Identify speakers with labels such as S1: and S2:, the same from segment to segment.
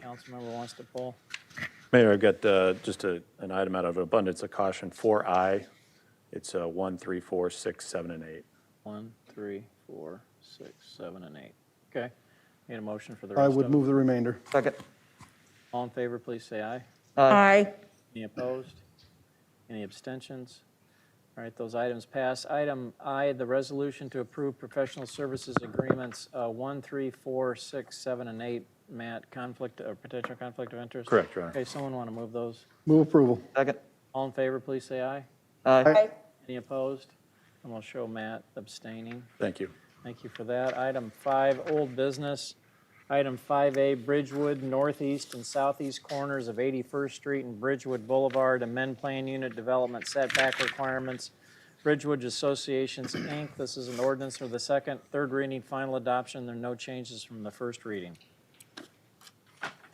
S1: council member wants to pull.
S2: Mayor, I've got uh, just a- an item out of abundance of caution, 4I. It's uh, 1, 3, 4, 6, 7, and 8.
S1: One, three, four, six, seven, and eight. Okay. Need a motion for the rest
S3: I
S1: of
S3: would
S1: them?
S3: move the remainder.
S4: Second.
S1: All in favor, please say aye.
S5: Aye.
S1: Any opposed? Any abstentions? All right, those items pass. Item I, the resolution to approve professional services agreements, uh, one, three, four, six, seven, and eight. Matt, conflict, or potential conflict of interest?
S2: Correct, Your Honor.
S1: Okay, someone want to move those?
S3: Move approval.
S4: Second.
S1: All in favor, please say aye.
S4: Aye.
S1: Any opposed? And we'll show Matt abstaining.
S2: Thank you.
S1: Thank you for that. Item five, old business. Item 5A, Bridgewood northeast and southeast corners of 81st Street and Bridgewood Boulevard, amend plan unit development setback requirements. Bridgewood Associations, Inc. This is an ordinance for the second, third reading, final adoption. There are no changes from the first reading.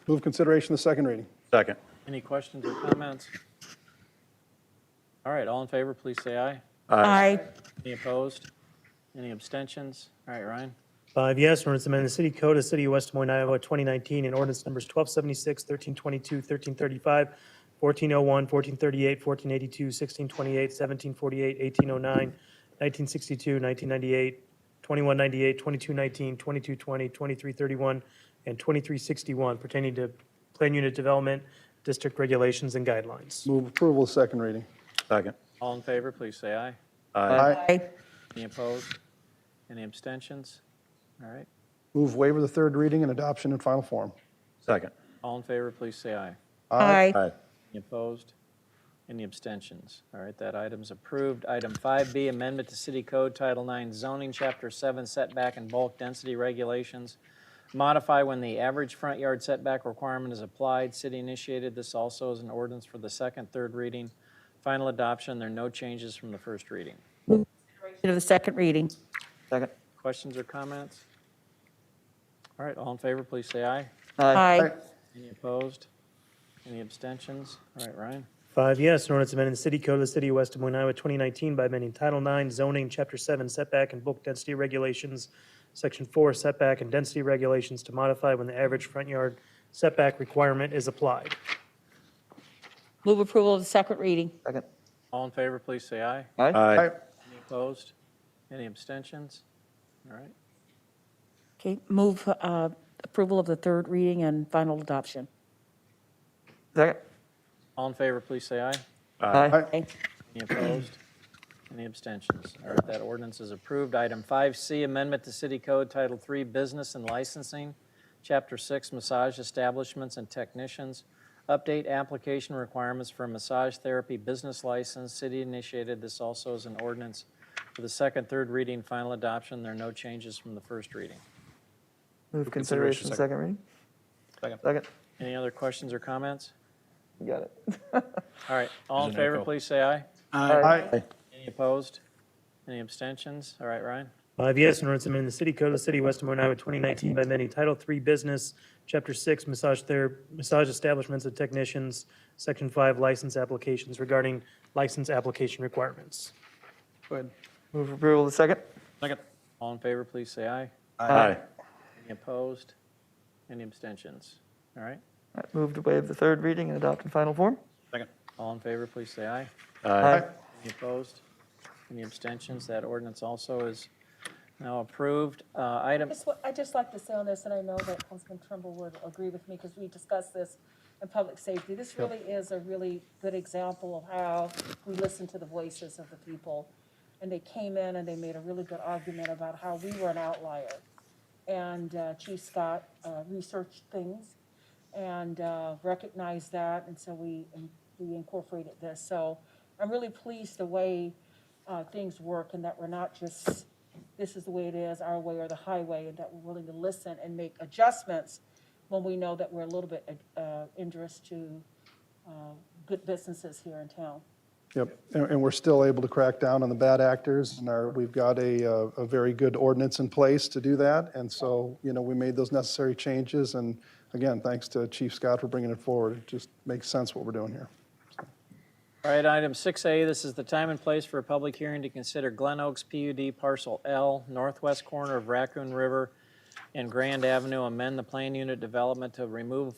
S3: Move consideration of the second reading.
S2: Second.
S1: Any questions or comments? All right, all in favor, please say aye.
S5: Aye.
S1: Any opposed? Any abstentions? All right, Ryan?
S6: Five yes, an ordinance amending the city code of the city of West Des Moines, Iowa, 2019, and ordinance numbers 1276, 1322, 1335, 1401, 1438, 1482, 1628, 1748, 1809, 1962, 1998, 2198, 2219, 2220, 2331, and 2361 pertaining to plan unit development, district regulations, and guidelines.
S3: Move approval of the second reading.
S2: Second.
S1: All in favor, please say aye.
S2: Aye.
S5: Aye.
S1: Any opposed? Any abstentions? All right.
S3: Move waiver of the third reading and adoption in final form.
S2: Second.
S1: All in favor, please say aye.
S2: Aye.
S1: Any opposed? Any abstentions? All right, that item's approved. Item 5B, Amendment to City Code Title IX Zoning, Chapter 7 Setback and Bulk Density Regulations. Modify when the average front yard setback requirement is applied. City initiated this also as an ordinance for the second, third reading. Final adoption, there are no changes from the first reading.
S5: Consideration of the second reading.
S4: Second.
S1: Questions or comments? All right, all in favor, please say aye.
S5: Aye.
S1: Any opposed? Any abstentions? All right, Ryan?
S6: Five yes, an ordinance amending the city code of the city of West Des Moines, Iowa, 2019 by amending Title IX zoning, Chapter 7 setback and bulk density regulations, Section 4 setback and density regulations to modify when the average front yard setback requirement is applied.
S5: Move approval of the second reading.
S4: Second.
S1: All in favor, please say aye.
S2: Aye.
S1: Any opposed? Any abstentions? All right.
S5: Okay, move uh, approval of the third reading and final adoption.
S4: Second.
S1: All in favor, please say aye.
S4: Aye.
S5: Aye.
S1: Any opposed? Any abstentions? All right, that ordinance is approved. Item 5C, Amendment to City Code Title III Business and Licensing, Chapter 6 Massage Establishments and Technicians. Update application requirements for massage therapy business license. City initiated this also as an ordinance for the second, third reading, final adoption. There are no changes from the first reading.
S4: Move consideration, second reading?
S1: Second.
S4: Second.
S1: Any other questions or comments?
S4: You got it.
S1: All right, all in favor, please say aye.
S3: Aye.
S1: Any opposed? Any abstentions? All right, Ryan?
S6: Five yes, an ordinance amending the city code of the city of West Des Moines, Iowa, 2019 by amending Title III business, Chapter 6 massage ther, massage establishments and technicians, Section 5 license applications regarding license application requirements.
S4: Move approval of the second?
S1: Second. All in favor, please say aye.
S2: Aye.
S1: Any opposed? Any abstentions? All right,
S4: Alright, Move to waive the third reading and adopt in final form?
S1: all in favor, please say aye.
S2: Aye.
S1: Any opposed? Any abstentions? That ordinance also is now approved. Uh, Item,
S7: Just, wa- I'd just like to say on this, and I know that Councilman Trimble would agree with me because we discussed this in public safety. This really is a really good example of how we listen to the voices of the people. And they came in and they made a really good argument about how we were an outlier. And uh, Chief Scott uh, researched things and uh, recognized that, and so we, we incorporated this. So I'm really pleased the way uh, things work and that we're not just, this is the way it is, our way or the highway, and that we're willing to listen and make adjustments when we know that we're a little bit uh, injurious to uh, good businesses here in town.
S3: Yep, and, and we're still able to crack down on the bad actors, and our, we've got a, uh, a very good ordinance in place to do that. And so, you know, we made those necessary changes, and again, thanks to Chief Scott for bringing it forward. It just makes sense what we're doing here.
S1: all right, item 6A, this is the time and place for a public hearing to consider Glen Oaks PUD Parcel L, northwest corner of Raccoon River and Grand Avenue, amend the plan unit development to remove